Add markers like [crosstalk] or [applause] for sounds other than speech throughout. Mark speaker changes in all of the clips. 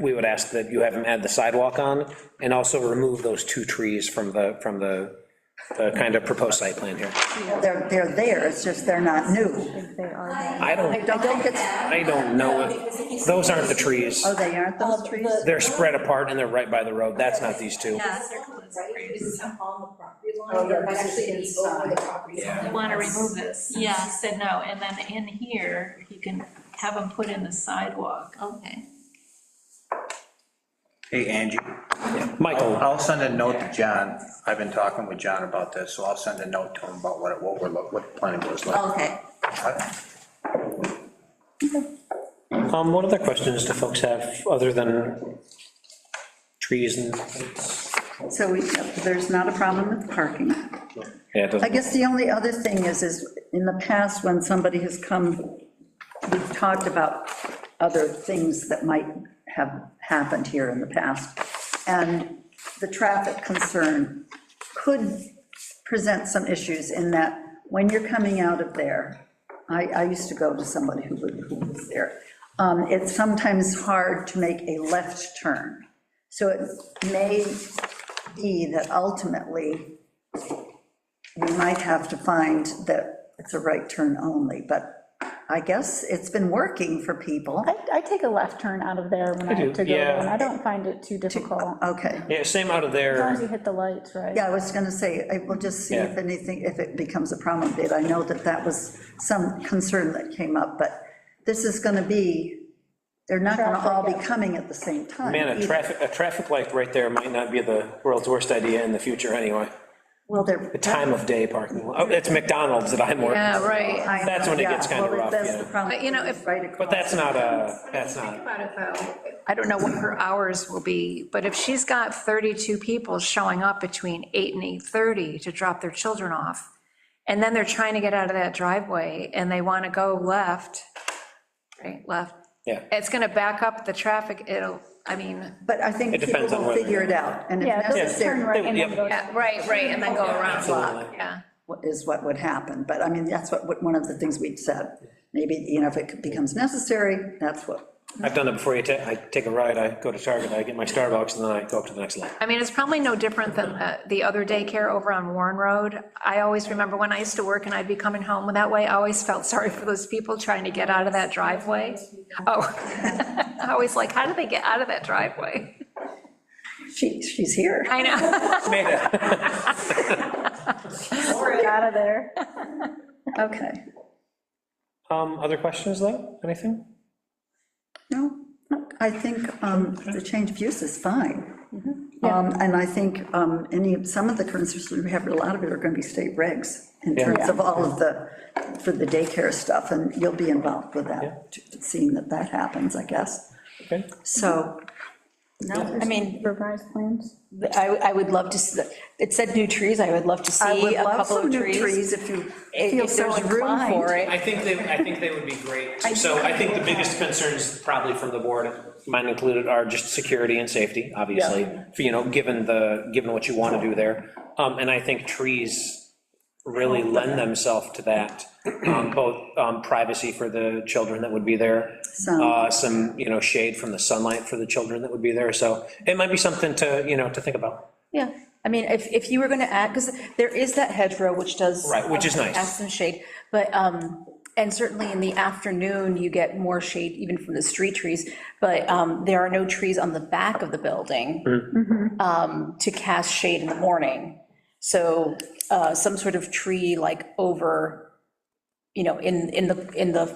Speaker 1: we would ask that you have him add the sidewalk on, and also remove those two trees from the, from the, the kind of proposed site plan here.
Speaker 2: They're, they're there, it's just they're not new.
Speaker 3: They are,
Speaker 1: I
Speaker 2: I
Speaker 1: don't,
Speaker 2: don't think it's,
Speaker 1: I don't know if, those aren't the trees.
Speaker 2: oh, they aren't
Speaker 3: Um,
Speaker 2: those trees?
Speaker 1: They're spread apart and they're right by the road, that's not these two.
Speaker 4: Yes, they're close, right? This is on the property line, they're actually over the property line.
Speaker 5: You want to remove this? Yeah, he said no, and then in here, you can have them put in the sidewalk.
Speaker 4: Okay.
Speaker 6: Hey, Angie, Oh,
Speaker 1: Michael,
Speaker 6: I'll send a note to John. I've been talking with John about this, so I'll send a note to him about what, it- what we're, look- what the planning board's looking.
Speaker 4: Okay.
Speaker 1: um, what other questions do folks have, other than trees and?
Speaker 2: So we, there's not a problem with parking.
Speaker 1: Yeah, it
Speaker 2: I
Speaker 1: doesn't-
Speaker 2: guess the only other thing is, is in the past, when somebody has come, we've talked about other things that might have happened here in the past, and the traffic concern could present some issues in that when you're coming out of there, I, I used to go to somebody who lived- who was there, um, it's sometimes hard to make a left turn. So it may be that ultimately, we might have to find that it's a right turn only, but I guess it's been working for people.
Speaker 3: I, I take a left turn out of there when I have to go,
Speaker 1: yeah.
Speaker 3: and I don't find it too difficult. As
Speaker 2: Okay,
Speaker 1: Yeah, same out of
Speaker 3: long as
Speaker 1: there,
Speaker 3: you hit the lights, right?
Speaker 2: yeah, I was gonna say, I will just see if
Speaker 1: Yeah.
Speaker 2: anything, if it becomes a problem, but I know that that was some concern that came up, but this is gonna be, they're not gonna all be coming at the same time.
Speaker 1: man, a
Speaker 2: either.
Speaker 1: traffic, a traffic light right there might not be the world's worst idea in the future, anyway.
Speaker 2: Well, they're.
Speaker 1: The time of day parking, lot. oh, it's McDonald's that I'm working.
Speaker 5: right.
Speaker 2: I know,
Speaker 1: that's when it gets
Speaker 2: yeah,
Speaker 1: kinda
Speaker 2: well,
Speaker 1: rough,
Speaker 2: that's
Speaker 1: yeah.
Speaker 2: the problem,
Speaker 5: But, you know, if-
Speaker 2: right across.
Speaker 1: But that's not a, that's not,
Speaker 5: About it though, I don't know what her hours will be, but if she's got 32 people showing up between 8 and 8:30 to drop their children off, and then they're trying to get out of that driveway, and they want to go left, right, left,
Speaker 1: yeah.
Speaker 5: it's going to back up the traffic, it'll, I mean,
Speaker 2: But I think
Speaker 1: It
Speaker 2: people
Speaker 1: depends on
Speaker 2: will
Speaker 1: whether-
Speaker 2: figure it out, and if
Speaker 3: Yeah, they'll just turn
Speaker 2: necessary,
Speaker 3: right and then
Speaker 1: Yep.
Speaker 3: go.
Speaker 5: yeah, right, right, and then go around,
Speaker 1: Absolutely.
Speaker 5: yeah.
Speaker 2: what- is what would happen, but I mean, that's what, what- one of the things we'd said. Maybe, you know, if it becomes necessary, that's what,
Speaker 1: I've done it before, you ta- I take a ride, I go to Target, I get my Starbucks, and then I go up to the next line.
Speaker 5: I mean, it's probably no different than uh, the other daycare over on Warren Road. I always remember when I used to work and I'd be coming home that way, I always felt [laughs] sorry for those people trying to get out of that driveway. [laughs] Oh, I always like, how do they get out of that driveway?
Speaker 2: she, she's here.
Speaker 5: I know.
Speaker 3: Get out of there.
Speaker 2: Okay,
Speaker 1: Um, other questions, though, anything?
Speaker 2: no, I think um, the change of use is fine.
Speaker 7: Mm-hmm.
Speaker 2: Um, And I think um, any, some of the concerns we have, a lot of it are going to be state regs in terms of all of the, for the daycare stuff, and you'll be involved with that, seeing that that happens, I guess.
Speaker 1: Okay.
Speaker 2: So, no,
Speaker 7: I mean,
Speaker 3: Revised plans.
Speaker 7: I, I would love to, s- it said new trees, I would love to
Speaker 2: I
Speaker 7: see
Speaker 2: would
Speaker 7: a
Speaker 2: love
Speaker 7: couple
Speaker 2: some
Speaker 7: of
Speaker 2: new
Speaker 7: trees.
Speaker 2: trees if you
Speaker 7: If
Speaker 2: feel
Speaker 7: if
Speaker 2: so
Speaker 7: there's room
Speaker 2: inclined.
Speaker 7: for it.
Speaker 1: I think they, I think they would be great. So I think the biggest concerns probably from the board, mine included, are just security and safety, obviously, for, you know, given the, given what you want to do there. Um, and I think trees really lend themselves to that, um, both um, privacy for the children that would be there,
Speaker 2: Some.
Speaker 1: uh, some, you know, shade from the sunlight for the children that would be there, so it might be something to, you know, to think about.
Speaker 7: Yeah, I mean, if, if you were going to add, because there is that hedgerow which does. uh,
Speaker 1: Right, which is nice.
Speaker 7: Add some shade, but, um, and certainly in the afternoon, you get more shade even from the street trees, but um, there are no trees on the back of the building um, to cast shade in the morning. So uh, some sort of tree like over, you know, in, in the, in the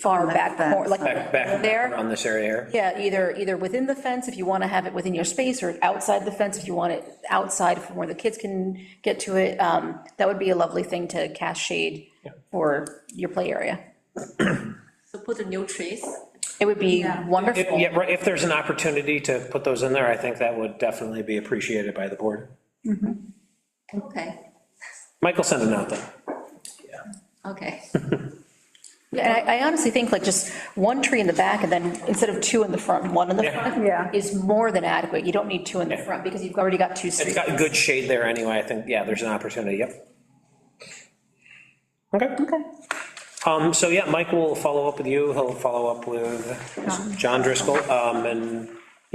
Speaker 7: far back, cor- like
Speaker 1: Back, back
Speaker 7: there.
Speaker 1: around this area here.
Speaker 7: Yeah, either, either within the fence, if you want to have it within your space, or outside the fence, if you want it outside from where the kids can get to it. um, That would be a lovely thing to cast shade for your play area.
Speaker 4: So put a new trees.
Speaker 7: It would be
Speaker 1: If-
Speaker 7: wonderful.
Speaker 1: Yeah, right, if there's an opportunity to put those in there, I think that would definitely be appreciated by the board.
Speaker 4: Okay,
Speaker 1: Michael, send it out then.
Speaker 7: [laughs]
Speaker 4: okay.
Speaker 7: And I I honestly think like just one tree in the back, and then instead of two in the front, one in the
Speaker 1: Yeah.
Speaker 7: front.
Speaker 2: Yeah.
Speaker 7: Is more than adequate. You don't need two in the
Speaker 1: Yeah.
Speaker 7: front, because you've already got two
Speaker 1: It's
Speaker 7: streets.
Speaker 1: got good shade there anyway, I think, yeah, there's an opportunity, yep. Okay. Okay. Um, so yeah, Mike will follow up with you, he'll follow up with John Driscoll, um, and